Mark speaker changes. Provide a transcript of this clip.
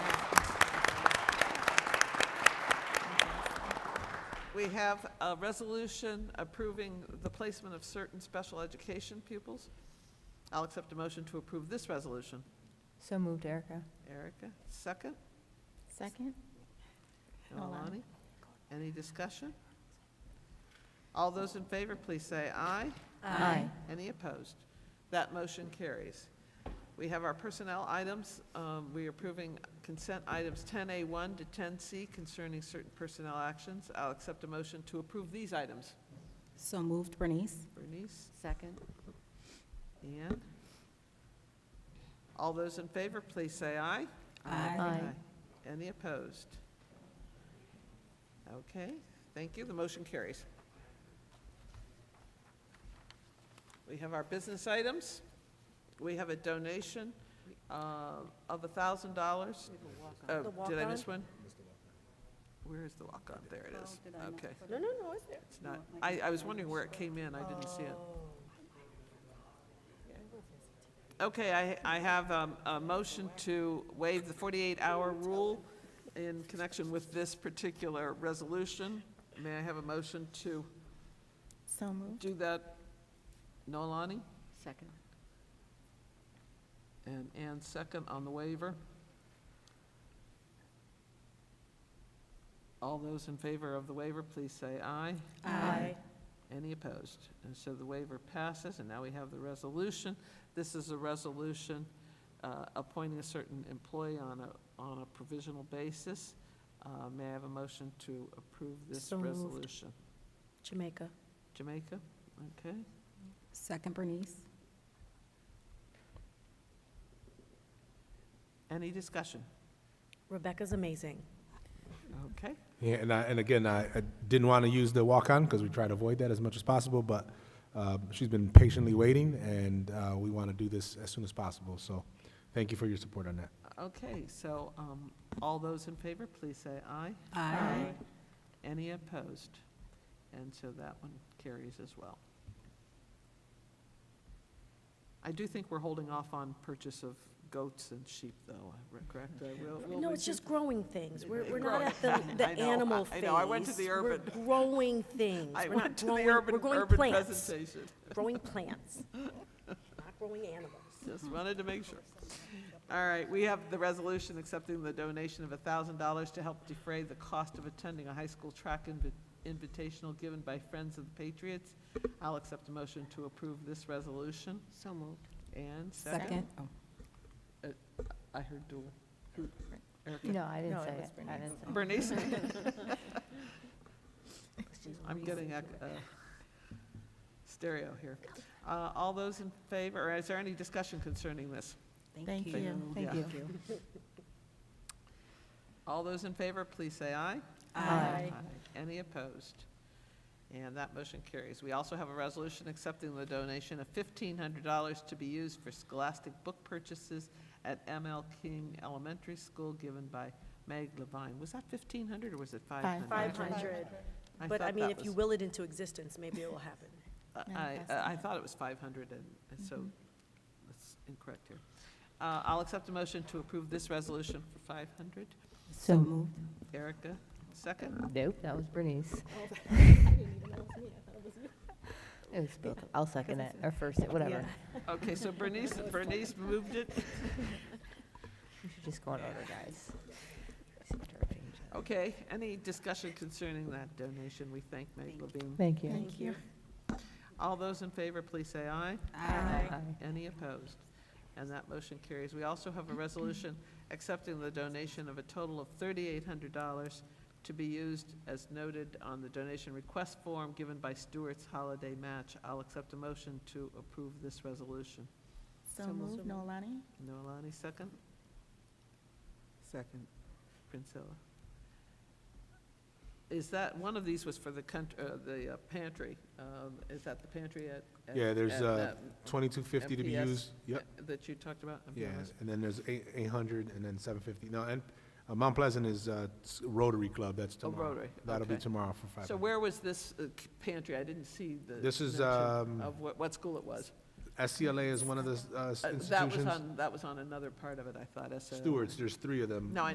Speaker 1: we have a resolution approving the placement of certain special education pupils. I'll accept a motion to approve this resolution.
Speaker 2: So moved, Erica.
Speaker 1: Erica, second.
Speaker 3: Second?
Speaker 1: Nolani, any discussion? All those in favor, please say aye.
Speaker 2: Aye.
Speaker 1: Any opposed? That motion carries. We have our personnel items. Um, We are approving consent items 10A1 to 10C concerning certain personnel actions. I'll accept a motion to approve these items.
Speaker 3: So moved, Bernice.
Speaker 1: Bernice,
Speaker 3: Second.
Speaker 1: Deanne? All those in favor, please say aye.
Speaker 3: Aye.
Speaker 2: Aye.
Speaker 1: Any opposed? Okay, thank you, the motion carries. We have our business items. We have a donation uh, of $1,000. Oh, did I miss one? Where is the walk-on? There it is. Okay,
Speaker 4: No, no, no, it's there.
Speaker 1: it's not, I, I was wondering where it came in, I didn't see it. Okay, I, I have um, a motion to waive the 48-hour rule in connection with this particular resolution. May I have a motion to
Speaker 3: So moved.
Speaker 1: do that? Nolani?
Speaker 3: Second.
Speaker 1: And Ann second on the waiver. All those in favor of the waiver, please say aye.
Speaker 2: Aye.
Speaker 1: Any opposed? And so the waiver passes, and now we have the resolution. This is a resolution uh, appointing a certain employee on a, on a provisional basis. Uh, May I have a motion to approve this
Speaker 3: So moved.
Speaker 1: resolution?
Speaker 3: Jamaica.
Speaker 1: Jamaica? Okay.
Speaker 3: Second, Bernice.
Speaker 1: Any discussion?
Speaker 4: Rebecca's amazing.
Speaker 1: Okay.
Speaker 5: Yeah, and I, and again, I, I didn't want to use the walk-on because we try to avoid that as much as possible, but, uh, she's been patiently waiting and, uh, we want to do this as soon as possible, so thank you for your support on that.
Speaker 1: Okay, so um, all those in favor, please say aye. Any opposed? And so that one carries as well. I do think we're holding off on purchase of goats and sheep, though, I- correct? Uh, we'll- we'll
Speaker 4: No, it's
Speaker 1: redo-
Speaker 4: just growing things. We're,
Speaker 1: It-
Speaker 4: we're not at
Speaker 1: it
Speaker 4: the,
Speaker 1: grows.
Speaker 4: the
Speaker 1: I know, I-
Speaker 4: animal
Speaker 1: I
Speaker 4: phase.
Speaker 1: know, I went to the urban-
Speaker 4: We're growing things.
Speaker 1: I
Speaker 4: We're not
Speaker 1: went to the
Speaker 4: growing-
Speaker 1: urban,
Speaker 4: We're growing
Speaker 1: urban
Speaker 4: plants.
Speaker 1: presentation.
Speaker 4: Growing plants, not growing animals.
Speaker 1: Just wanted to make sure. All right, we have the resolution accepting the donation of thousand dollars to help defray the cost of attending a high school track invi- invitational given by Friends of the Patriots. I'll accept a motion to approve this resolution.
Speaker 3: So moved.
Speaker 1: And second,
Speaker 3: Second.
Speaker 1: I heard dual.
Speaker 2: No,
Speaker 4: No,
Speaker 2: I didn't
Speaker 4: it
Speaker 2: say
Speaker 4: was
Speaker 2: it. I didn't say it.
Speaker 1: Bernice? I'm getting a uh, stereo here. Uh, All those in favor, or is there any discussion concerning this?
Speaker 3: Thank
Speaker 1: you. you.
Speaker 2: Thank
Speaker 1: Yeah.
Speaker 2: you.
Speaker 1: All those in favor, please say aye.
Speaker 2: Aye.
Speaker 1: Any opposed? And that motion carries. We also have a resolution accepting the donation of $1,500 to be used for scholastic book purchases at ML King Elementary School given by Meg Levine. Was that 1,500 or was it 500?
Speaker 4: Five hundred. But I mean, if you will it into existence, maybe it will happen.
Speaker 2: No,
Speaker 1: I,
Speaker 2: that's
Speaker 1: I I
Speaker 2: not.
Speaker 1: thought it was 500 and, and
Speaker 4: Mm-hmm.
Speaker 1: so that's incorrect here. Uh, I'll accept a motion to approve this resolution for 500.
Speaker 2: So moved.
Speaker 1: Erica, second?
Speaker 2: Nope, that was Bernice. It was both. I'll second it, or first it, whatever.
Speaker 1: Okay, so Bernice, Bernice moved it.
Speaker 2: We should just go in order, guys. Just interchange it.
Speaker 1: Okay, any discussion concerning that donation? We thank Meg Levine.
Speaker 2: Thank you.
Speaker 3: Thank you.
Speaker 1: All those in favor, please say aye.
Speaker 2: Aye.
Speaker 1: Any opposed? And that motion carries. We also have a resolution accepting the donation of a total of $3,800 to be used as noted on the donation request form given by Stewart's Holiday Match. I'll accept a motion to approve this resolution.
Speaker 3: So moved, Nolani.
Speaker 1: Noelani, second? Second. Prinsella. Is that, one of these was for the country, uh, the uh, pantry. Um, is that the pantry at? at-
Speaker 5: Yeah, there's,
Speaker 1: at,
Speaker 5: uh, Twenty-two fifty to be
Speaker 1: MPS?
Speaker 5: used, yep,
Speaker 1: That you talked about? I'm
Speaker 5: yeah,
Speaker 1: honest.
Speaker 5: and then there's eight, eight hundred and then seven fifty. No, and, uh, Mount Pleasant is, uh, s- Rotary Club, that's
Speaker 1: Oh,
Speaker 5: tomorrow.
Speaker 1: Rotary,
Speaker 5: That'll be
Speaker 1: okay.
Speaker 5: tomorrow for five
Speaker 1: So
Speaker 5: hundred.
Speaker 1: where was this uh, c- pantry? I didn't see the.
Speaker 5: This is,
Speaker 1: mention
Speaker 5: um,
Speaker 1: Of what, what school it was.
Speaker 5: SCLA is one of the, uh, s-
Speaker 1: Uh, That was
Speaker 5: institutions.
Speaker 1: on, that was on another part of it, I thought, SO.
Speaker 5: Stewards, there's three of them.
Speaker 1: No, I